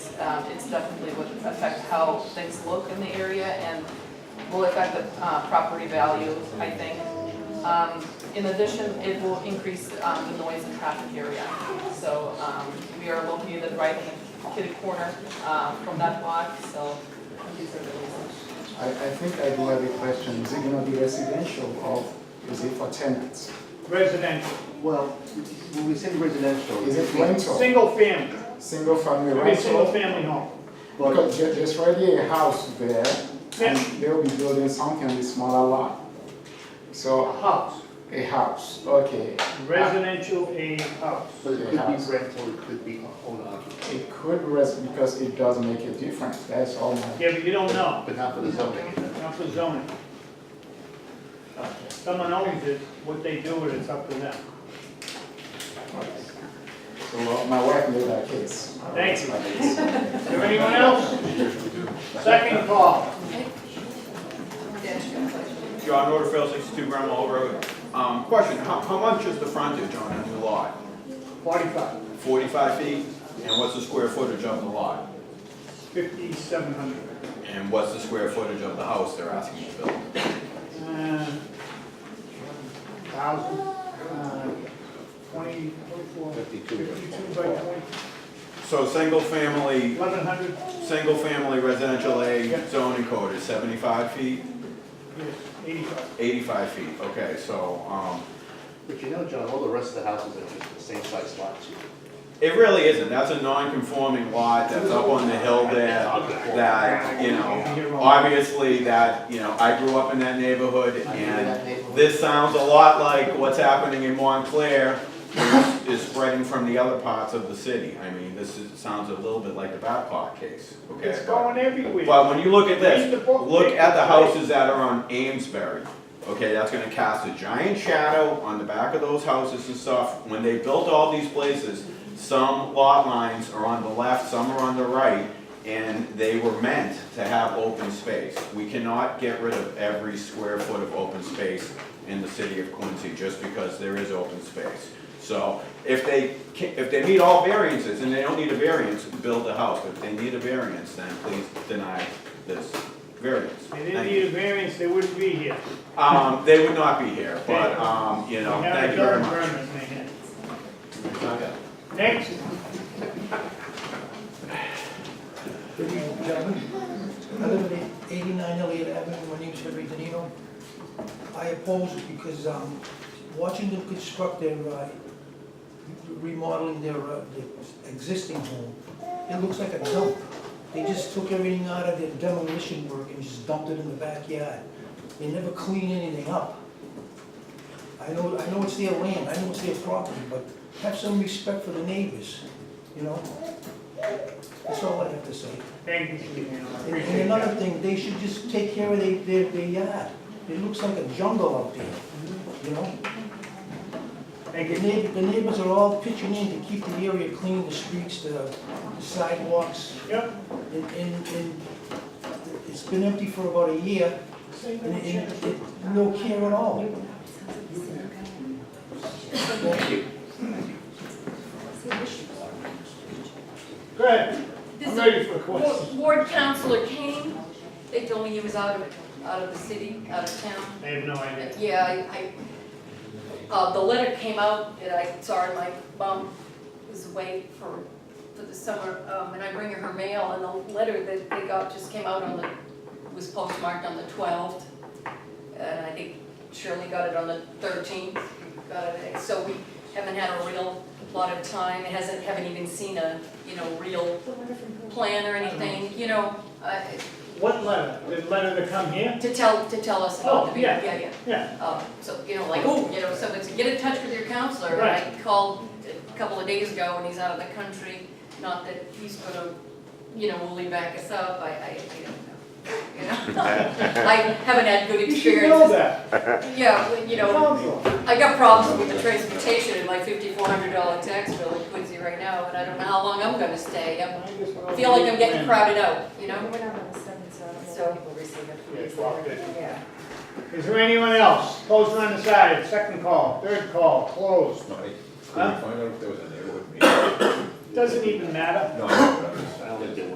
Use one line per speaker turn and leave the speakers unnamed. um, it's definitely would affect how things look in the area and will affect the, uh, property value, I think. Um, in addition, it will increase, um, the noise and traffic area. So, um, we are located right in the kitty corner, um, from that block, so these are the reasons.
I, I think I do have a question. Is it gonna be residential or is it for tenants?
residential,
Well, when we say residential.
Is it rental,
single family,
single family
I mean, single
rental?
family home.
But
Because there- there's already a house there and
Yeah.
they'll be building something on the smaller lot.
A
So,
house,
a house, okay.
residential a house.
but it could be rental, it could be owner
Uh,
occupied,
It could rest because it does make a difference, that's all my.
Yeah, but you don't know,
but not for the zoning.
not for zoning. Someone owns it, what they do with it's up to them.
So uh, my wife made that case.
Thank you. Is there anyone else? Second call.
John Rutherford, 62 Grand Mall Road. Um, Question, how how much is the frontage on a new lot?
Forty-five,
45 feet? And what's the square footage of the lot?
fifty-seven hundred.
And what's the square footage of the house they're asking you to build?
Uh, Thousand, uh, twenty, twenty-four. Fifty-two. Fifty-two by twenty,
So, single-family,
eleven hundred,
single-family residential
Yeah.
A zoning code is 75 feet,
yes, eighty-five.
85 feet, okay, so, um,
But you know, John, all the rest of the houses are just the same size lots.
it really isn't, that's a non-conforming lot that's up on the hill there, that, you know, obviously, that, you know, I grew up in that neighborhood,
I mean, in
and
that neighborhood.
This sounds a lot like what's happening in Montclair which is spreading from the other parts of the city. I mean, this is, sounds a little bit like the Babcock case, okay?
It's
but-
going everywhere.
But when you look at
Read the
this,
book,
look
Dick.
at the houses that are on Amesbury, okay, that's gonna cast a giant shadow on the back of those houses and stuff. When they built all these places, some lot lines are on the left, some are on the right, and they were meant to have open space. We cannot get rid of every square foot of open space in the city of Quincy just because there is open space. So if they, ca- if they meet all variances, and they don't need a variance, build the house. If they need a variance, then please deny this variance.
They didn't need a variance, they wouldn't be here.
Um, they would not be here, but, um, you know,
They have
thank
a
you
current
very much.
permit in their hand. Next,
Good evening, gentlemen. I live at 89 Elliott Avenue, my name is Henry Danino. I oppose it because um, watching them construct their, uh, remodeling their uh, their existing home, it looks like a dump. They just took everything out of their demolition work and just dumped it in the backyard. They never clean anything up. I know, I know it's their land, I know it's their property, but have some respect for the neighbors, you know? That's all I have to say.
thank you, Stephen, I
And-
appreciate
And another
that.
thing, they should just take care of their, their, their yard. It looks like a jungle out there, you know?
Thank
The
you.
neighbors, the neighbors are all pitching in to keep the area clean, the streets, the sidewalks,
Yep,
and, and, and it's been empty for about a year, and, and, and no care at all. Thank you.
go ahead, I'm ready for questions.
Wa- Ward Counselor Kane, they told me he was out of, out of the city, out of town.
I have no idea.
Yeah, I, I, uh, the letter came out that I saw in my bum, was away for, for the summer, um, and I bring her her mail, and the letter that they got just came out on the, was postmarked on the twelfth. And I think Shirley got it on the thirteenth, got it, so we haven't had a real lot of time, it hasn't, haven't even seen a, you know, real plan or anything, you know, uh,
What letter? The letter to come here?
to tell, to tell us about the
Oh,
meeting,
yeah.
yeah, yeah.
Yeah,
Um, So, you know, like, oh, you know, so it's, get in touch with your counselor. And I called a couple of days ago and he's out of the country, not that he's gonna, you know, will he back us up, I, I, I don't know. You know, I haven't had good
you should know
experience.
that.
Yeah, well, you know,
Council.
I got problems with the transportation and my fifty-four hundred dollar tax bill in Quincy right now, and I don't know how long I'm gonna stay. I feel like I'm getting crowded out, you know?
We're not on the seventh, so I don't know
So-
if people receive it.
Yeah, it's locked in.
Yeah.
Is there anyone else? Post on the side, second call, third call, closed. Huh?
find out if there was a neighborhood meeting?
Doesn't even matter.
No, I don't know.